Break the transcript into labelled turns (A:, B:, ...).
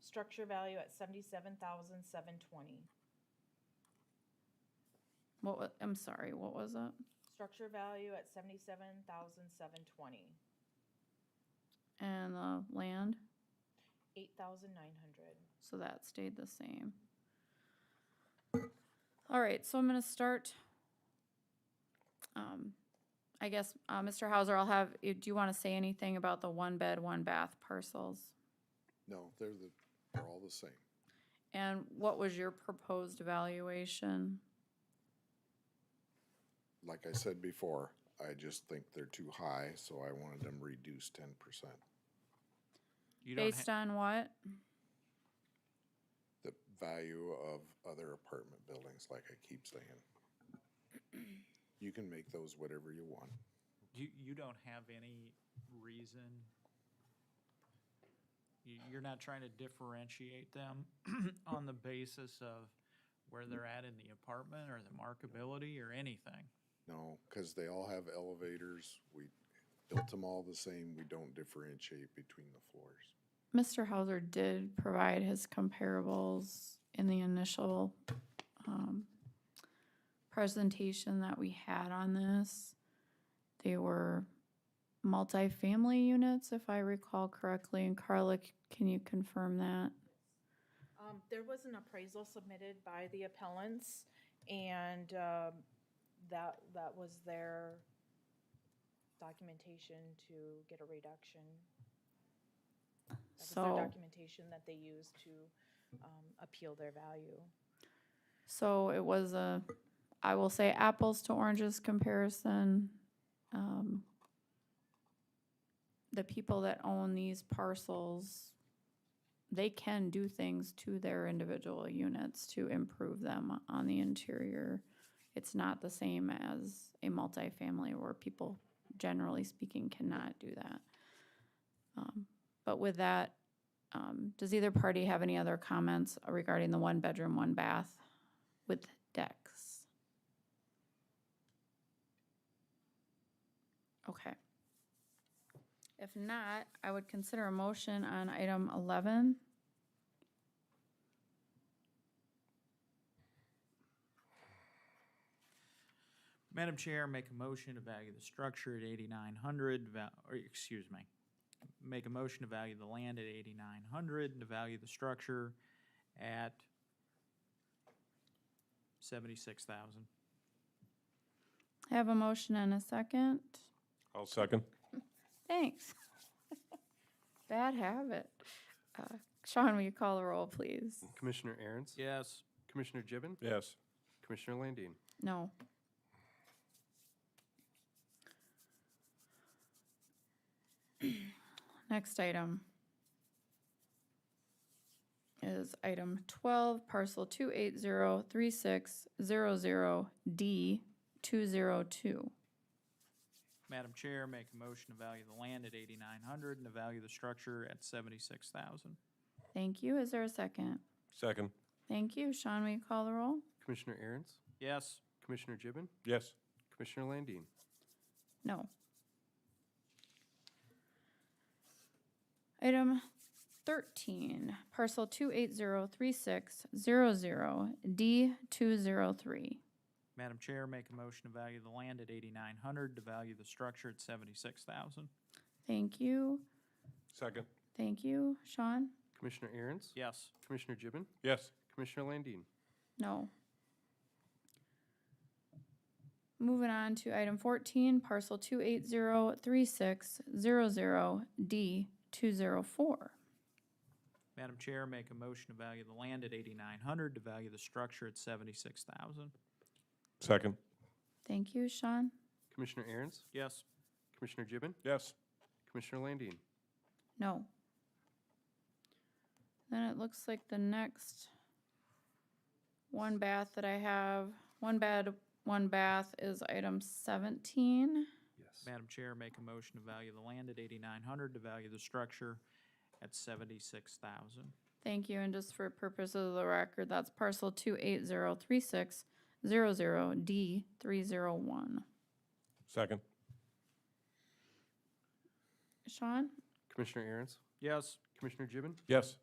A: structure value at seventy-seven thousand seven twenty.
B: What, wa- I'm sorry, what was it?
A: Structure value at seventy-seven thousand seven twenty,
B: And the land,
A: eight thousand nine hundred.
B: so that stayed the same. All right, so I'm gonna start. Um, I guess, uh, Mr. Hauser, I'll have, you- do you wanna say anything about the one bed, one bath parcels?
C: No, they're the, they're all the same.
B: And what was your proposed valuation?
C: Like I said before, I just think they're too high, so I wanted them reduced ten percent.
D: You don't,
B: Based
D: ha-
B: on what?
C: The value of other apartment buildings, like I keep saying. You can make those whatever you want.
D: you, you don't have any reason. You, you're not trying to differentiate them on the basis of where they're at in the apartment or the markability or anything.
C: No, because they all have elevators. We built them all the same. We don't differentiate between the floors.
B: Mr. Hauser did provide his comparables in the initial um, presentation that we had on this. They were multifamily units, if I recall correctly, and Carla, c- can you confirm that?
A: Um, there was an appraisal submitted by the appellants and, um, that, that was their documentation to get a reduction. That was their
B: So,
A: documentation that they used to, um, appeal their value.
B: so it was a, I will say apples to oranges comparison. Um, The people that own these parcels they can do things to their individual units to improve them on the interior. It's not the same as a multifamily where people, generally speaking, cannot do that. Um, But with that, um, does either party have any other comments regarding the one bedroom, one bath with decks? Okay. If not, I would consider a motion on item eleven.
D: Madam Chair, make a motion to value the structure at eighty-nine hundred, val- or, excuse me. Make a motion to value the land at eighty-nine hundred, to value the structure at seventy-six thousand.
B: I have a motion and a second.
E: I'll second.
B: Thanks. Bad habit. Uh, Sean, will you call the roll, please?
F: Commissioner Aaron's?
D: Yes.
F: Commissioner Gibbon?
E: Yes.
F: Commissioner Landine?
B: No. Next item is item twelve, parcel two eight zero three six zero zero D two zero two.
D: Madam Chair, make a motion to value the land at eighty-nine hundred and to value the structure at seventy-six thousand.
B: Thank you. Is there a second?
E: Second.
B: Thank you. Sean, will you call the roll?
F: Commissioner Aaron's?
D: Yes.
F: Commissioner Gibbon?
E: Yes.
F: Commissioner Landine?
B: No. Item thirteen, parcel two eight zero three six zero zero D two zero three.
D: Madam Chair, make a motion to value the land at eighty-nine hundred, to value the structure at seventy-six thousand.
B: Thank you,
E: Second.
B: thank you. Sean?
F: Commissioner Aaron's?
D: Yes.
F: Commissioner Gibbon?
E: Yes.
F: Commissioner Landine?
B: No. Moving on to item fourteen, parcel two eight zero three six zero zero D two zero four.
D: Madam Chair, make a motion to value the land at eighty-nine hundred, to value the structure at seventy-six thousand.
E: Second.
B: Thank you, Sean.
F: Commissioner Aaron's?
D: Yes.
F: Commissioner Gibbon?
E: Yes.
F: Commissioner Landine?
B: No. Then it looks like the next one bath that I have, one bed, one bath is item seventeen.
F: Yes.
D: Madam Chair, make a motion to value the land at eighty-nine hundred, to value the structure at seventy-six thousand.
B: Thank you, and just for purposes of the record, that's parcel two eight zero three six zero zero D three zero one.
E: Second.
B: Sean?
F: Commissioner Aaron's?
D: Yes.
F: Commissioner Gibbon?
E: Yes.